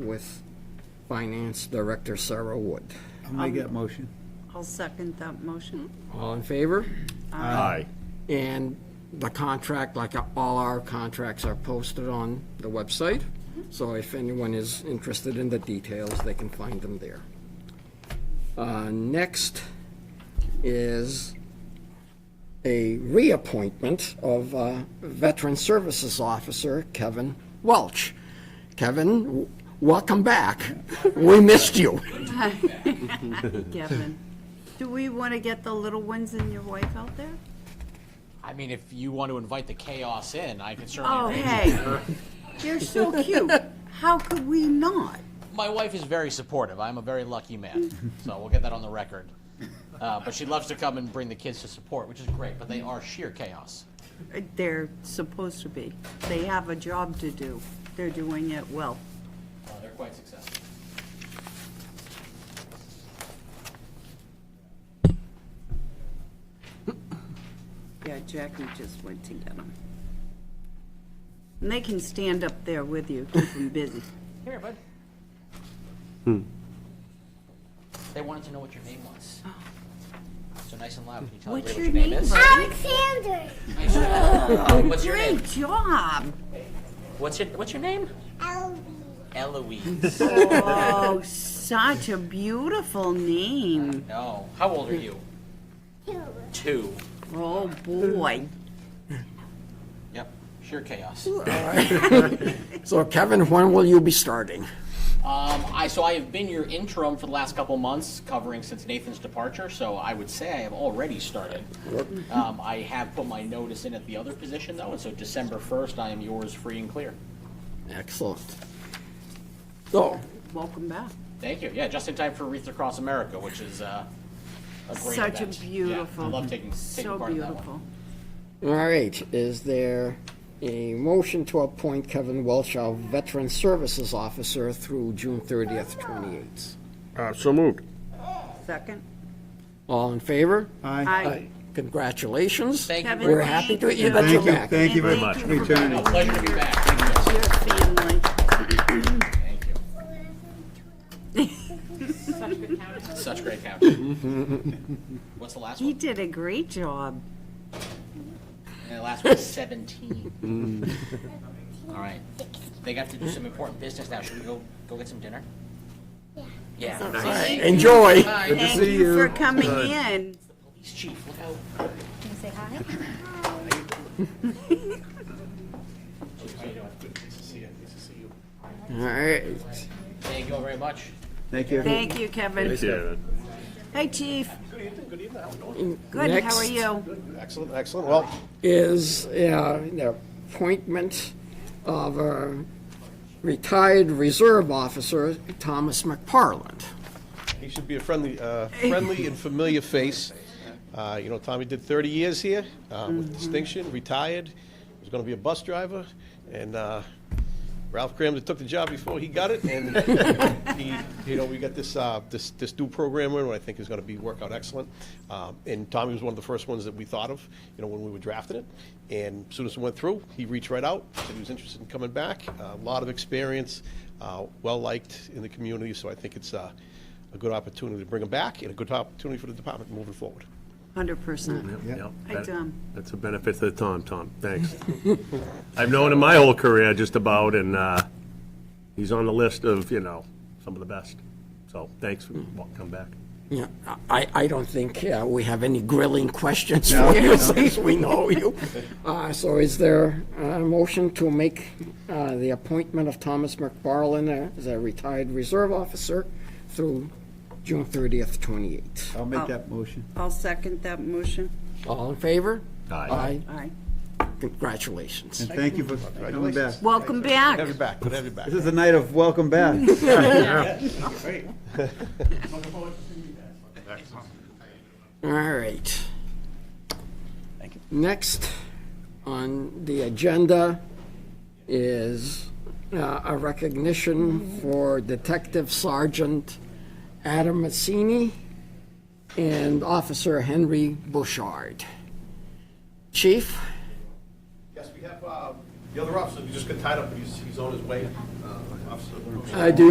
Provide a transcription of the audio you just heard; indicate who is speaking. Speaker 1: with Finance Director Sarah Wood.
Speaker 2: I'll make that motion.
Speaker 3: I'll second that motion.
Speaker 1: All in favor?
Speaker 4: Aye.
Speaker 1: And the contract, like all our contracts, are posted on the website. So if anyone is interested in the details, they can find them there. Uh, Next is a reappointment of uh, Veteran Services Officer Kevin Welch. Kevin, w- welcome back. We missed you.
Speaker 3: Kevin, do we want to get the little ones and your wife out there?
Speaker 5: I mean, if you want to invite the chaos in, I can certainly.
Speaker 3: Oh,
Speaker 5: arrange
Speaker 3: hey, you're so cute. How could we not?
Speaker 5: My wife is very supportive. I'm a very lucky man, so we'll get that on the record. Uh, but she loves to come and bring the kids to support, which is great. But they are sheer chaos.
Speaker 3: They're supposed to be. They have a job to do. They're doing it well.
Speaker 5: Uh, they're quite successful.
Speaker 3: Yeah, Jackie just went to get them. And they can stand up there with you, keep them busy.
Speaker 5: Here, bud. They wanted to know what your name was. So nice and loud. Can you tell
Speaker 3: Oh. What's your
Speaker 5: everybody what
Speaker 3: name, Oh,
Speaker 5: your name, is?
Speaker 6: Alexander,
Speaker 5: What's your name?
Speaker 3: Great job.
Speaker 5: What's your What's your name?
Speaker 6: Albie,
Speaker 5: Eloise.
Speaker 3: Oh, such a beautiful name.
Speaker 5: no. How old are you?
Speaker 6: Hoover,
Speaker 5: Two.
Speaker 3: Oh, boy.
Speaker 5: Yep. Sheer chaos.
Speaker 1: So Kevin, when will you be starting?
Speaker 5: Um, I, so I have been your interim for the last couple months, covering since Nathan's departure, so I would say I have already started. Um, I have put my notice in at the other position though, and so December first, I am yours free and clear.
Speaker 1: Excellent. So,
Speaker 3: Welcome back.
Speaker 5: Thank you. Yeah, just in time for Wreath Across America, which is, uh, a great event.
Speaker 3: Such a
Speaker 5: Yeah,
Speaker 3: beautiful.
Speaker 5: I love taking, taking part in that
Speaker 3: So beautiful.
Speaker 5: one.
Speaker 1: All right, is there a motion to appoint Kevin Welch, our Veteran Services Officer, through June 30th, 28th?
Speaker 4: Uh, So moved.
Speaker 3: Second?
Speaker 1: All in favor?
Speaker 3: Aye.
Speaker 1: Congratulations.
Speaker 5: Thank you
Speaker 3: Kevin,
Speaker 5: very
Speaker 1: We're
Speaker 5: much.
Speaker 1: happy to
Speaker 3: thank
Speaker 1: hear that
Speaker 2: Thank
Speaker 1: you're
Speaker 2: you,
Speaker 1: back.
Speaker 2: thank you very
Speaker 3: And
Speaker 2: much
Speaker 3: thank
Speaker 2: for
Speaker 3: you for
Speaker 2: returning.
Speaker 5: Pleasure to be back. Thank you, guys.
Speaker 3: Your family.
Speaker 5: Thank you. Such great county. What's the last
Speaker 3: He
Speaker 5: one?
Speaker 3: did a great job.
Speaker 5: And the last one's 17. All right. They got to do some important business now. Should we go, go get some dinner? Yeah. Yeah. Nice.
Speaker 1: Enjoy.
Speaker 5: Hi,
Speaker 3: Thank
Speaker 2: see
Speaker 3: you for
Speaker 2: you.
Speaker 3: coming in.
Speaker 5: Police chief, look out.
Speaker 6: can you say hi?
Speaker 5: How you doing? Nice to see you. Nice to see you.
Speaker 1: All right.
Speaker 5: Thank you all very much.
Speaker 2: Thank you.
Speaker 3: Thank you, Kevin.
Speaker 4: Kevin.
Speaker 3: Hey, Chief. Good, how are
Speaker 1: Next
Speaker 3: you?
Speaker 7: Excellent, excellent. Well,
Speaker 1: is uh, the appointment of a retired reserve officer, Thomas McParland.
Speaker 7: he should be a friendly, uh, friendly and familiar face. Uh, You know, Tommy did 30 years here uh, with distinction, retired, He was going to be a bus driver, and uh, Ralph Graham that took the job before he got it, and he, you know, we got this, uh, this, this new program in, what I think is going to be, work out excellent. Um, And Tommy was one of the first ones that we thought of, you know, when we were drafting it, and as soon as it went through, he reached right out, said he was interested in coming back, a lot of experience, uh, well-liked in the community, so I think it's uh, a good opportunity to bring him back, and a good opportunity for the department moving forward.
Speaker 3: Hundred percent.
Speaker 4: Yep.
Speaker 3: Hi, Tom.
Speaker 4: That's a benefit to the Tom, Tom, thanks. I've known him my whole career, just about, and uh, he's on the list of, you know, some of the best. So thanks for coming back.
Speaker 1: Yeah, I, I don't think uh, we have any grilling questions for you, since we know you. Uh, So is there a motion to make uh, the appointment of Thomas McFarland as a retired reserve officer through June 30th, 28?
Speaker 2: I'll make that motion.
Speaker 3: I'll second that motion.
Speaker 1: All in favor?
Speaker 4: Aye.
Speaker 3: Aye.
Speaker 1: Congratulations.
Speaker 2: And thank you for coming back.
Speaker 7: Congratulations.
Speaker 3: Welcome
Speaker 7: Good to have
Speaker 3: back.
Speaker 7: you back, good to have you back.
Speaker 2: This is a night of welcome back.
Speaker 1: All right. Thank you. Next on the agenda is uh, a recognition for Detective Sergeant Adam Massini and Officer Henry Bouchard. Chief?
Speaker 7: Yes, we have, the other officer, he just got tied up, he's on his way, Officer.
Speaker 1: I do